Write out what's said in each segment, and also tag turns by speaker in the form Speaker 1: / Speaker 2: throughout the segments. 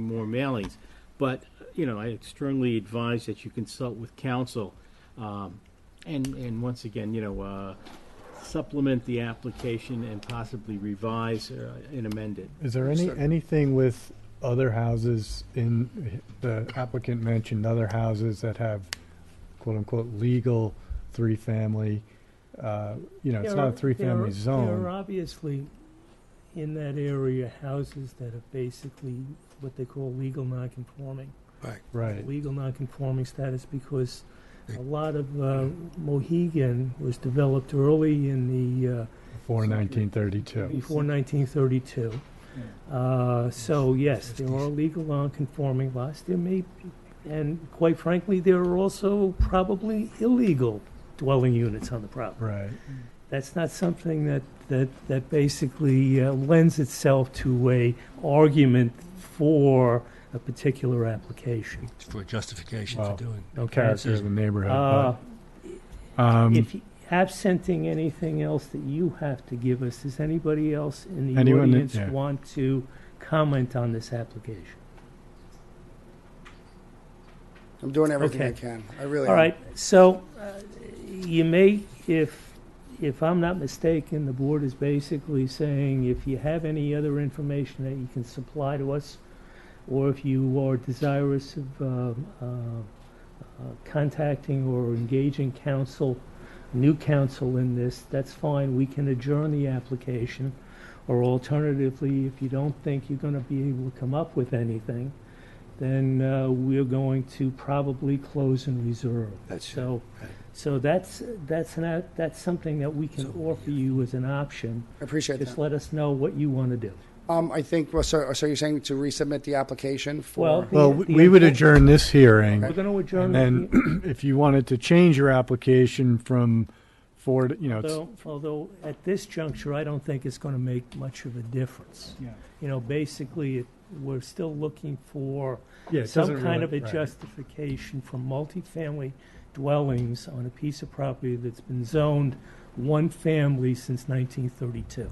Speaker 1: more mailings. But, you know, I strongly advise that you consult with counsel. Um, and, and once again, you know, uh, supplement the application and possibly revise uh, and amend it.
Speaker 2: Is there any, anything with other houses in, the applicant mentioned other houses that have quote-unquote legal three-family, uh, you know, it's
Speaker 3: There
Speaker 2: not
Speaker 3: are-
Speaker 2: a
Speaker 3: there
Speaker 2: three-family
Speaker 3: are- There are
Speaker 2: zone.
Speaker 3: obviously, in that area, houses that are basically what they call legal non-conforming.
Speaker 2: Right,
Speaker 3: Legal non-conforming status because a lot of uh, Mohegan was developed early in the, uh,
Speaker 2: before nineteen thirty-two.
Speaker 3: before 1932. Uh, So, yes, there are legal non-conforming lots, there may, be- and quite frankly, there are also probably illegal dwelling units on the property
Speaker 2: Right,
Speaker 3: that's not something that, that, that basically uh, lends itself to a argument for a particular application.
Speaker 4: for justification
Speaker 2: Wow.
Speaker 4: for doing.
Speaker 3: Okay.
Speaker 2: character of the
Speaker 3: Uh,
Speaker 2: neighborhood. but, um,
Speaker 3: if, you- absenting anything else that you have to give us, does anybody else in the
Speaker 2: Anyone that-
Speaker 3: audience
Speaker 2: yeah.
Speaker 3: want to comment on this application?
Speaker 5: I'm doing everything I
Speaker 3: Okay.
Speaker 5: can. I really
Speaker 3: All
Speaker 5: am.
Speaker 3: right, so uh, you may, if, if I'm not mistaken, the board is basically saying if you have any other information that you can supply to us, or if you are desirous of um, uh, uh, contacting or engaging counsel, new counsel in this, that's fine, we can adjourn the application. Or alternatively, if you don't think you're going to be able to come up with anything, then uh, we're going to probably close and reserve.
Speaker 5: That's-
Speaker 3: So,
Speaker 5: right.
Speaker 3: so that's, that's an that's something that we can
Speaker 4: So-
Speaker 3: offer you as an option.
Speaker 5: I appreciate
Speaker 3: Just
Speaker 5: that.
Speaker 3: let us know what you want to do.
Speaker 5: Um, I think, well, so, so you're saying to resubmit the application for?
Speaker 3: Well, the-
Speaker 2: Well,
Speaker 3: the
Speaker 2: we would
Speaker 3: intent-
Speaker 2: adjourn this hearing.
Speaker 3: We're going to adjourn.
Speaker 2: And then if you wanted to change your application from four, to- you know,
Speaker 3: the-
Speaker 2: it's-
Speaker 3: although- Although, at this juncture, I don't think it's going to make much of a difference.
Speaker 2: Yeah.
Speaker 3: You know, basically, it- we're still looking for
Speaker 2: yeah, it
Speaker 3: some
Speaker 2: doesn't
Speaker 3: kind of
Speaker 2: really-
Speaker 3: a
Speaker 2: right.
Speaker 3: justification for multifamily dwellings on a piece of property that's been zoned one family since 1932.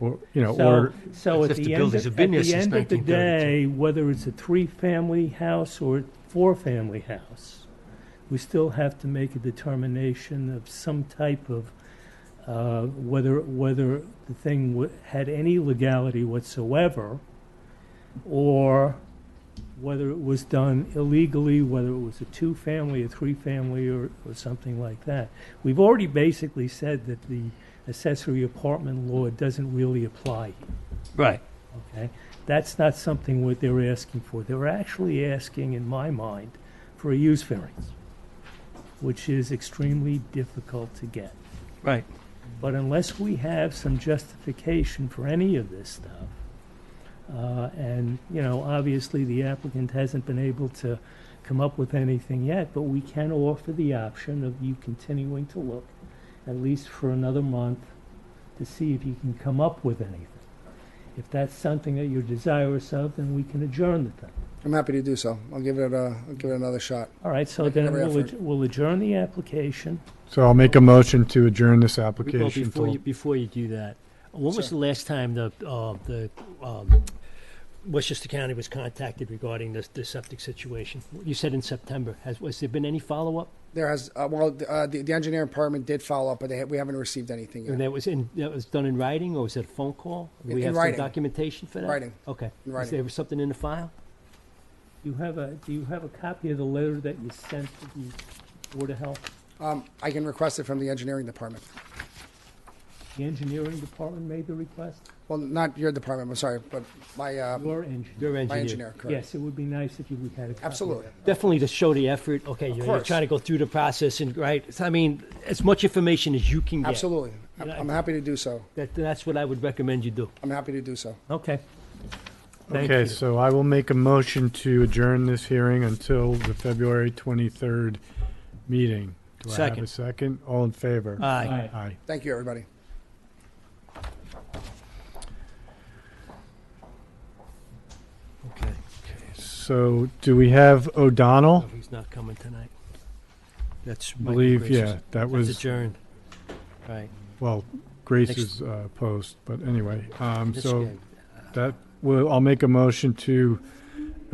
Speaker 2: Or, you know,
Speaker 3: So,
Speaker 2: or,
Speaker 3: so
Speaker 4: As
Speaker 3: at
Speaker 4: if
Speaker 3: the
Speaker 4: the
Speaker 3: end,
Speaker 4: buildings
Speaker 3: of- at
Speaker 4: have been here
Speaker 3: the
Speaker 4: since
Speaker 3: end of the
Speaker 4: 1932.
Speaker 3: day, whether it's a three-family house or a four-family house, we still have to make a determination of some type of, uh, whether, whether the thing wa- had any legality whatsoever, or whether it was done illegally, whether it was a two-family, a three-family, or, or something like that. We've already basically said that the accessory apartment law doesn't really apply,
Speaker 4: Right.
Speaker 3: okay? That's not something what they're asking for. They're actually asking, in my mind, for a use variance, which is extremely difficult to get.
Speaker 4: Right.
Speaker 3: But unless we have some justification for any of this stuff, uh, and, you know, obviously the applicant hasn't been able to come up with anything yet, but we can offer the option of you continuing to look at least for another month to see if you can come up with anything. If that's something that you're desirous of, then we can adjourn the thing.
Speaker 5: I'm happy to do so. I'll give it a, I'll give it another shot.
Speaker 3: All right, so
Speaker 5: Make
Speaker 3: then
Speaker 5: every
Speaker 3: we'll
Speaker 5: effort.
Speaker 3: adj- we'll adjourn the application.
Speaker 2: so I'll make a motion to adjourn this
Speaker 4: Well,
Speaker 2: application
Speaker 4: before you,
Speaker 2: till,
Speaker 4: before you do that, when was
Speaker 5: Sir.
Speaker 4: the last time the, uh, the, um, Westchester County was contacted regarding this, this septic situation? You said in September. Has, has there been any follow-up?
Speaker 5: There has, uh, well, the- uh, the, the engineering department did follow up, but they, ha- we haven't received anything
Speaker 4: And
Speaker 5: yet.
Speaker 4: that was in, that was done in writing, or was it a phone call? Do
Speaker 5: In-
Speaker 4: we
Speaker 5: in
Speaker 4: have
Speaker 5: writing.
Speaker 4: some documentation for that?
Speaker 5: Writing,
Speaker 4: Okay.
Speaker 5: in
Speaker 4: Is
Speaker 5: writing.
Speaker 4: there something in the file?
Speaker 3: You have a, do you have a copy of the letter that you sent to the Board of Health?
Speaker 5: Um, I can request it from the engineering department.
Speaker 3: The engineering department made the request?
Speaker 5: Well, not your department, I'm sorry, but my, uh,
Speaker 3: Your engineer?
Speaker 4: Your
Speaker 5: my
Speaker 4: engineer.
Speaker 5: engineer, correct.
Speaker 3: Yes, it would be nice if you we had a copy. of
Speaker 5: Absolutely.
Speaker 3: that.
Speaker 4: Definitely to show the effort. Okay, you're, you're
Speaker 5: course.
Speaker 4: trying to go through the process and right. I mean, as much information as you can get.
Speaker 5: Absolutely. I'm
Speaker 4: Yeah, I-
Speaker 5: I'm happy to do so.
Speaker 4: That, that's what I would recommend you do.
Speaker 5: I'm happy to do so.
Speaker 3: Okay. Thank
Speaker 2: okay,
Speaker 3: you.
Speaker 2: so I will make a motion to adjourn this hearing until the February twenty-third meeting. Do I have a
Speaker 4: Second. Uh,
Speaker 2: second? All in favor?
Speaker 4: Aye.
Speaker 2: Aye.
Speaker 5: Thank you, everybody.
Speaker 4: Okay.
Speaker 2: So do we have
Speaker 4: No,
Speaker 2: O'Donnell?
Speaker 4: he's not coming tonight. That's
Speaker 2: I
Speaker 4: Michael
Speaker 2: believe,
Speaker 4: Grace's-
Speaker 2: yeah, that
Speaker 4: That's
Speaker 2: was,
Speaker 4: adjourned. Right.
Speaker 2: well, Grace's uh, post, but anyway, um,
Speaker 4: This
Speaker 2: so
Speaker 4: guy.
Speaker 2: that, will I'll make a motion to